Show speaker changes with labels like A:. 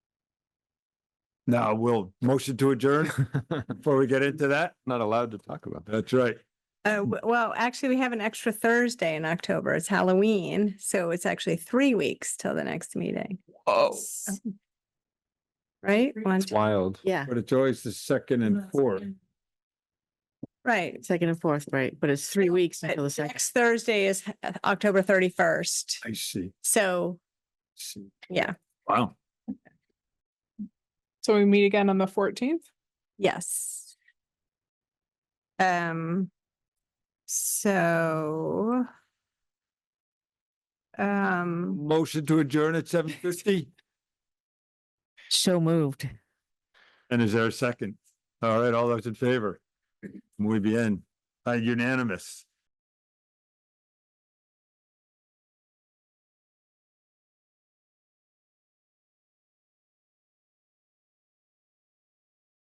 A: Now, we'll motion to adjourn before we get into that.
B: Not allowed to talk about that.
A: That's right.
C: Uh, w- well, actually, we have an extra Thursday in October. It's Halloween, so it's actually three weeks till the next meeting,
B: Oh.
C: right? One,
B: It's wild.
D: Yeah,
A: But it's always the second and fourth.
C: right.
D: second and fourth, right, but it's three weeks
C: But
D: until the second.
C: Next Thursday is uh, October thirty-first,
A: I see.
C: so,
A: see.
C: Yeah.
A: Wow.
E: So we meet again on the fourteenth?
C: yes. Um, so. Um,
A: Motion to adjourn at seven fifty?
D: So moved.
A: And is there a second? All right, all those in favor? Muy bien. Uh, Unanimous.